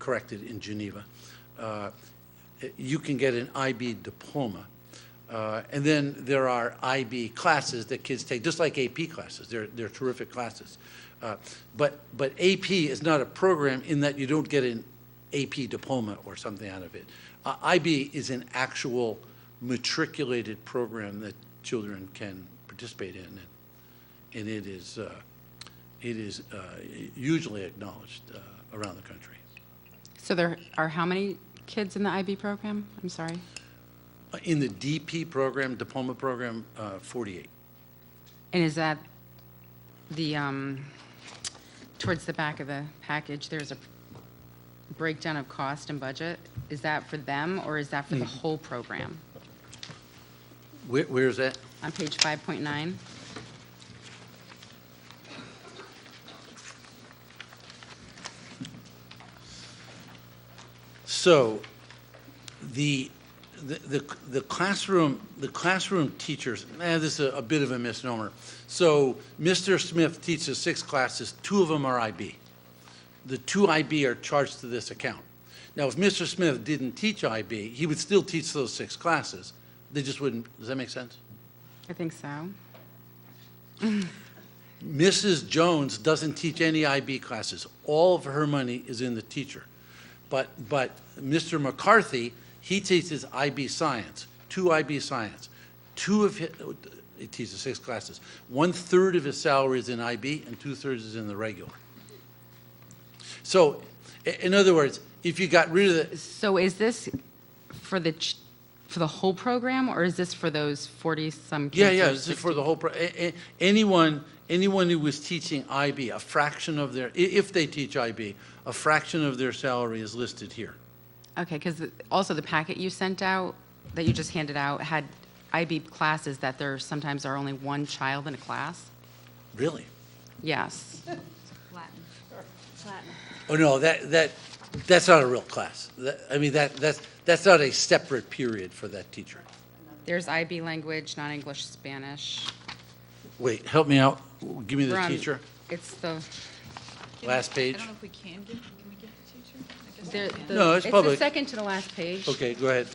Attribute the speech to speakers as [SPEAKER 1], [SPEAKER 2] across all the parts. [SPEAKER 1] corrected in Geneva. Uh, You can get an IB diploma. Uh, And then there are IB classes that kids take, just like AP classes. They're, they're terrific classes. Uh, But, but AP is not a program in that you don't get an AP diploma or something out of it. Uh, IB is an actual matriculated program that children can participate in, and- and it is, uh, it is uh, hugely acknowledged uh, around the country.
[SPEAKER 2] So there are how many kids in the IB program? I'm sorry.
[SPEAKER 1] Uh, In the DP program, diploma program, uh, 48.
[SPEAKER 2] And is that the, um, towards the back of the package, there's a breakdown of cost and budget? Is that for them or is that for the whole program?
[SPEAKER 1] Where, where is that?
[SPEAKER 2] On page 5.9?
[SPEAKER 1] So the, the, the- the classroom, the classroom teachers, eh, this is a bit of a misnomer. So Mr. Smith teaches six classes, two of them are IB. The two IB are charged to this account. Now, if Mr. Smith didn't teach IB, he would still teach those six classes. They just wouldn't, does that make sense?
[SPEAKER 2] I think so.
[SPEAKER 1] Mrs. Jones doesn't teach any IB classes. All of her money is in the teacher. But, but Mr. McCarthy, he teaches IB science, two IB science. Two of, hi- he teaches six classes. One-third of his salary is in IB and two-thirds is in the regular. So, i- in other words, if you got rid of the,
[SPEAKER 2] So is this for the, ch- for the whole program or is this for those 40-some kids?
[SPEAKER 1] Yeah,
[SPEAKER 2] or
[SPEAKER 1] yeah, this is for the whole, pro- a- a- anyone, anyone who was teaching IB, a fraction of their, i- if they teach IB, a fraction of their salary is listed here.
[SPEAKER 2] Okay, because also the packet you sent out, that you just handed out, had IB classes that there sometimes are only one child in a class?
[SPEAKER 1] Really?
[SPEAKER 2] Yes.
[SPEAKER 3] Latin. Latin.
[SPEAKER 1] Oh, no, that, that, that's not a real class. That- I mean, that, that's, that's not a separate period for that teacher.
[SPEAKER 2] There's IB language, non-English, Spanish.
[SPEAKER 1] Wait, help me out, give me
[SPEAKER 2] We're
[SPEAKER 1] the
[SPEAKER 2] on-
[SPEAKER 1] teacher,
[SPEAKER 2] It's the,
[SPEAKER 1] last page.
[SPEAKER 3] I don't know if we can give, can we give the teacher? I guess
[SPEAKER 2] there-
[SPEAKER 3] we can.
[SPEAKER 2] the-
[SPEAKER 1] No, it's
[SPEAKER 2] the
[SPEAKER 1] public.
[SPEAKER 2] second to the last page.
[SPEAKER 1] Okay, go ahead.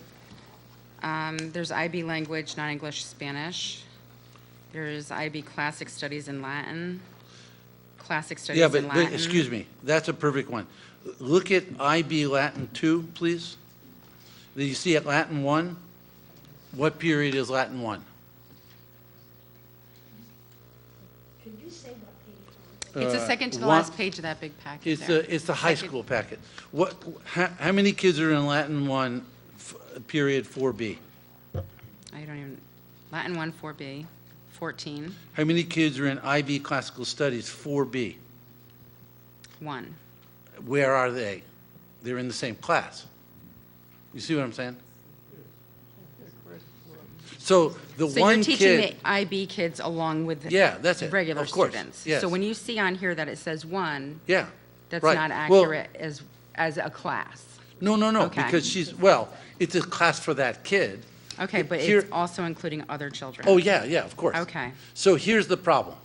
[SPEAKER 2] Um, There's IB language, non-English, Spanish. There's IB classic studies in Latin, classic studies
[SPEAKER 1] Yeah,
[SPEAKER 2] in
[SPEAKER 1] but,
[SPEAKER 2] Latin.
[SPEAKER 1] wait, excuse me, that's a perfect one. Look at IB Latin 2, please. Do you see at Latin 1? What period is Latin 1?
[SPEAKER 2] It's the second to the
[SPEAKER 1] uh, one-
[SPEAKER 2] last page of that big packet
[SPEAKER 1] It's
[SPEAKER 2] there.
[SPEAKER 1] the, it's the high
[SPEAKER 2] Second.
[SPEAKER 1] school packet. What, how, how many kids are in Latin 1, f- period 4B?
[SPEAKER 2] I don't even, Latin 1, 4B, 14,
[SPEAKER 1] How many kids are in IB Classical Studies 4B?
[SPEAKER 2] 1.
[SPEAKER 1] Where are they? They're in the same class. You see what I'm saying? So the
[SPEAKER 2] So you're
[SPEAKER 1] one
[SPEAKER 2] teaching
[SPEAKER 1] kid,
[SPEAKER 2] the IB kids along with the
[SPEAKER 1] Yeah, that's it.
[SPEAKER 2] regular
[SPEAKER 1] Of course,
[SPEAKER 2] students.
[SPEAKER 1] yes.
[SPEAKER 2] So when you see on here that it says 1,
[SPEAKER 1] yeah.
[SPEAKER 2] that's
[SPEAKER 1] right.
[SPEAKER 2] not
[SPEAKER 1] Well,
[SPEAKER 2] accurate as, as a class.
[SPEAKER 1] No, no, no,
[SPEAKER 2] Okay.
[SPEAKER 1] because she's, well, it's a class for that kid.
[SPEAKER 2] Okay, but
[SPEAKER 1] Here-
[SPEAKER 2] it's also including other children.
[SPEAKER 1] Oh, yeah, yeah, of course.
[SPEAKER 2] Okay.
[SPEAKER 1] So here's the problem.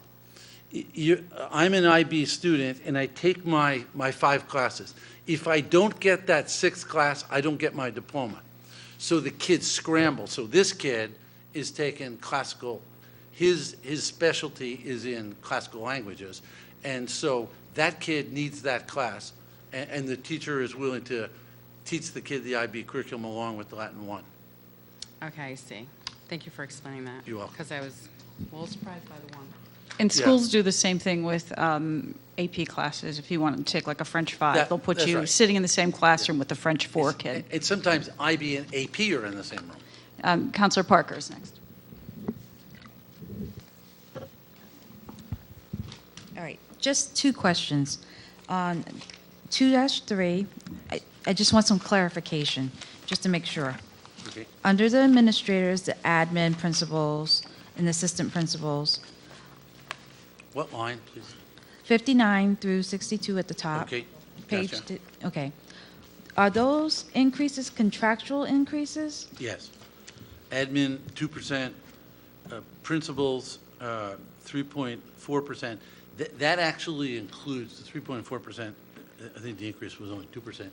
[SPEAKER 1] Y- you- I'm an IB student, and I take my, my five classes. If I don't get that sixth class, I don't get my diploma. So the kids scramble. So this kid is taking classical, his, his specialty is in classical languages, and so that kid needs that class, and, and the teacher is willing to teach the kid the IB curriculum along with Latin 1.
[SPEAKER 2] Okay, I see. Thank you for explaining that.
[SPEAKER 1] You're welcome.
[SPEAKER 2] Because I was a little surprised by the 1.
[SPEAKER 4] And
[SPEAKER 1] Yeah.
[SPEAKER 4] schools do the same thing with um, AP classes. If you want to take like a French
[SPEAKER 1] That-
[SPEAKER 4] five, they'll put
[SPEAKER 1] that's
[SPEAKER 4] you
[SPEAKER 1] right.
[SPEAKER 4] sitting in the same classroom with the French four kid.
[SPEAKER 1] And sometimes IB and AP are in the same room.
[SPEAKER 4] Um, Counselor Parker is next.
[SPEAKER 5] All right, just two questions. On 2-3, I- I just want some clarification, just to make sure.
[SPEAKER 1] Okay.
[SPEAKER 5] Under the administrators, the admin principals, and assistant principals,
[SPEAKER 1] What line, please?
[SPEAKER 5] 59 through 62 at the top.
[SPEAKER 1] Okay,
[SPEAKER 5] Page,
[SPEAKER 1] gotcha.
[SPEAKER 5] di- okay. Are those increases contractual increases?
[SPEAKER 1] Yes. Admin, 2%, uh, principals, uh, 3.4%. Th- That actually includes, the 3.4% I think the increase was only 2%.